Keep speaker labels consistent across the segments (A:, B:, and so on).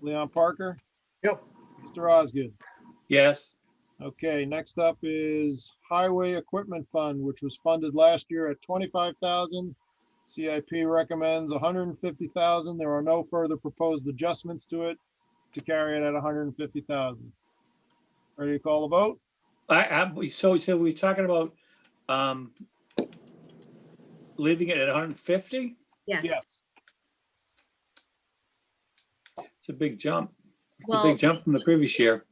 A: Leon Parker,
B: Yep.
A: Mr. Osgood.
C: Yes,
A: Okay, next up is Highway Equipment Fund, which was funded last year at twenty-five thousand. CIP recommends hundred and fifty thousand. There are no further proposed adjustments to it to carry it at hundred and fifty thousand. Ready to call the vote?
C: I, I, we- so, so we're talking about, um, leaving it at hundred and fifty?
D: Yes.
A: Yes.
C: It's a big jump. It's a
D: Well,
C: big jump from the previous year.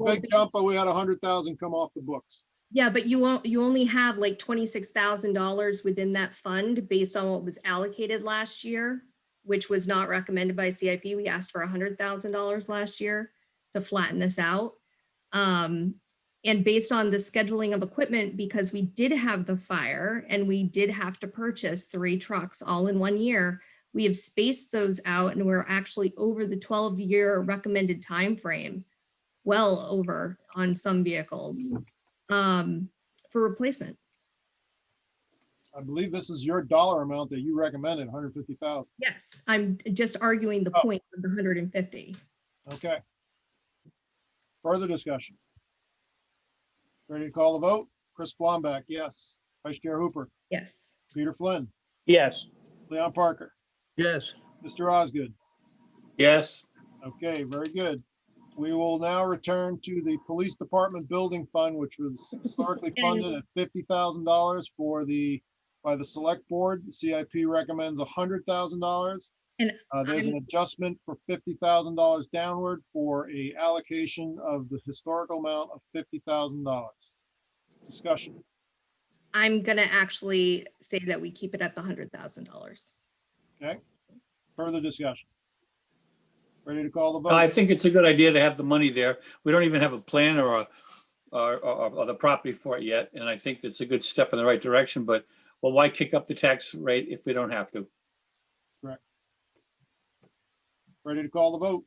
A: A big jump, but we had hundred thousand come off the books.
D: yeah, but you won't, you only have like twenty-six thousand dollars within that fund based on what was allocated last year, which was not recommended by CIP. We asked for hundred thousand dollars last year to flatten this out. Um, and based on the scheduling of equipment, because we did have the fire and we did have to purchase three trucks all in one year, we have spaced those out and we're actually over the twelve-year recommended time frame, well over on some vehicles um, for replacement.
A: I believe this is your dollar amount that you recommended, hundred fifty thousand.
D: Yes. I'm just arguing the
A: Oh.
D: point of the hundred and fifty.
A: Okay. Further discussion? Ready to call the vote? Chris Blomback, yes. Vice Chair Hooper,
D: Yes.
A: Peter Flynn,
B: Yes.
A: Leon Parker,
B: Yes.
A: Mr. Osgood.
C: Yes,
A: Okay, very good. We will now return to the Police Department Building Fund, which was historically funded at fifty thousand dollars for the, by the Select Board. The CIP recommends hundred thousand dollars.
D: And
A: Uh, there's an adjustment for fifty thousand dollars downward for a allocation of the historical amount of fifty thousand dollars. Discussion.
D: I'm gonna actually say that we keep it at the hundred thousand dollars.
A: Further discussion. Ready to call the vote?
C: I think it's a good idea to have the money there. We don't even have a plan or a, or, or, or the property for it yet, and I think it's a good step in the right direction, but, well, why kick up the tax rate if we don't have to?
A: Ready to call the vote?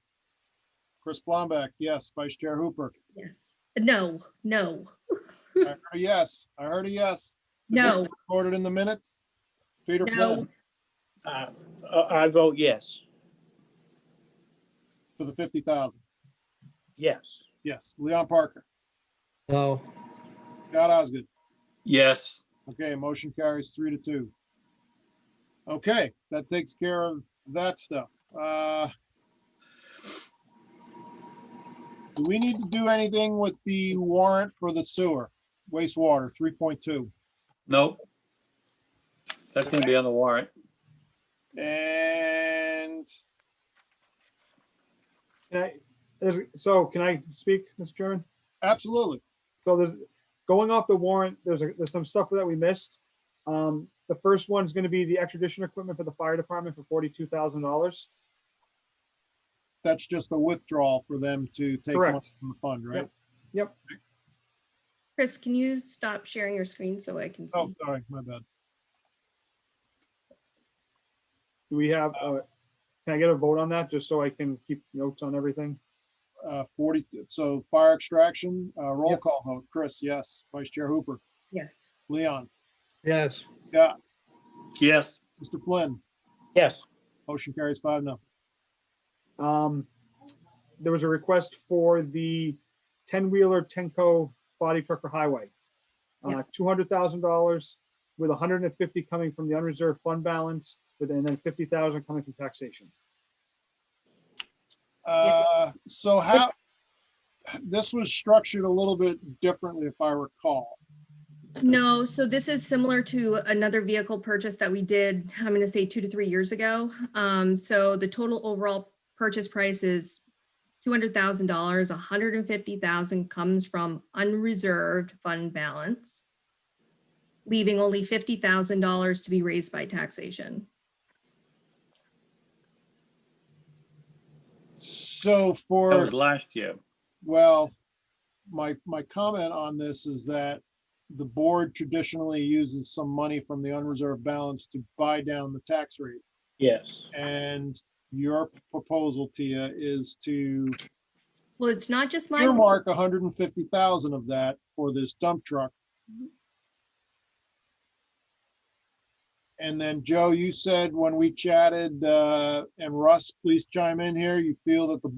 A: Chris Blomback, yes. Vice Chair Hooper.
D: Yes. No, no,
A: I heard a yes. I heard a yes. The vote
D: no,
A: is Recorded in the minutes. Peter
D: no.
A: Flynn
B: I uh, I vote yes.
A: for the fifty thousand.
B: Yes.
A: Yes. Leon Parker,
B: No.
A: Scott Osgood.
C: Yes,
A: Okay, motion carries three to two. Okay, that takes care of that stuff. Uh, Do we need to do anything with the warrant for the sewer wastewater three point two?
C: no. That's gonna be on the warrant.
A: And
E: Can I, is- so can I speak, Mr. Chairman?
A: absolutely,
E: So there's, going off the warrant, there's, a- there's some stuff that we missed. Um, the first one's gonna be the extradition equipment for the fire department for forty-two thousand dollars.
A: that's just a withdrawal for them to take
E: Correct.
A: money from the fund, right?
D: Chris, can you stop sharing your screen so I can
A: Oh,
D: see?
A: sorry, my bad.
E: Do we have, uh, can I get a vote on that, just so I can keep notes on everything?
A: Uh, forty, so fire extraction, uh, roll
E: Yep.
A: call vote. Chris, yes. Vice Chair Hooper,
D: Yes.
A: Leon,
B: Yes.
A: Scott,
C: Yes,
A: Mr. Flynn,
B: Yes.
A: motion carries five no.
E: Um, there was a request for the ten-wheeler Tenco body truck for highway.
D: Yeah.
E: Uh, two hundred thousand dollars with hundred and fifty coming from the unreserved fund balance, with, and then fifty thousand coming from taxation.
A: Uh, so how, this was structured a little bit differently if I recall.
D: No, so this is similar to another vehicle purchase that we did, I'm gonna say two to three years ago. Um, so the total overall purchase price is two hundred thousand dollars, $150,000 comes from unreserved fund balance. Leaving only fifty thousand dollars to be raised by taxation.
A: So
C: that
A: for,
C: was last year.
A: well, my, my comment on this is that the board traditionally uses some money from the unreserved balance to buy down the tax rate.
B: Yes.
A: And your proposal, Tia, is to
D: Well, it's not just my.
A: earmark hundred and fifty thousand of that for this dump truck. And then, Joe, you said when we chatted, uh, and Russ, please chime in here, you feel that the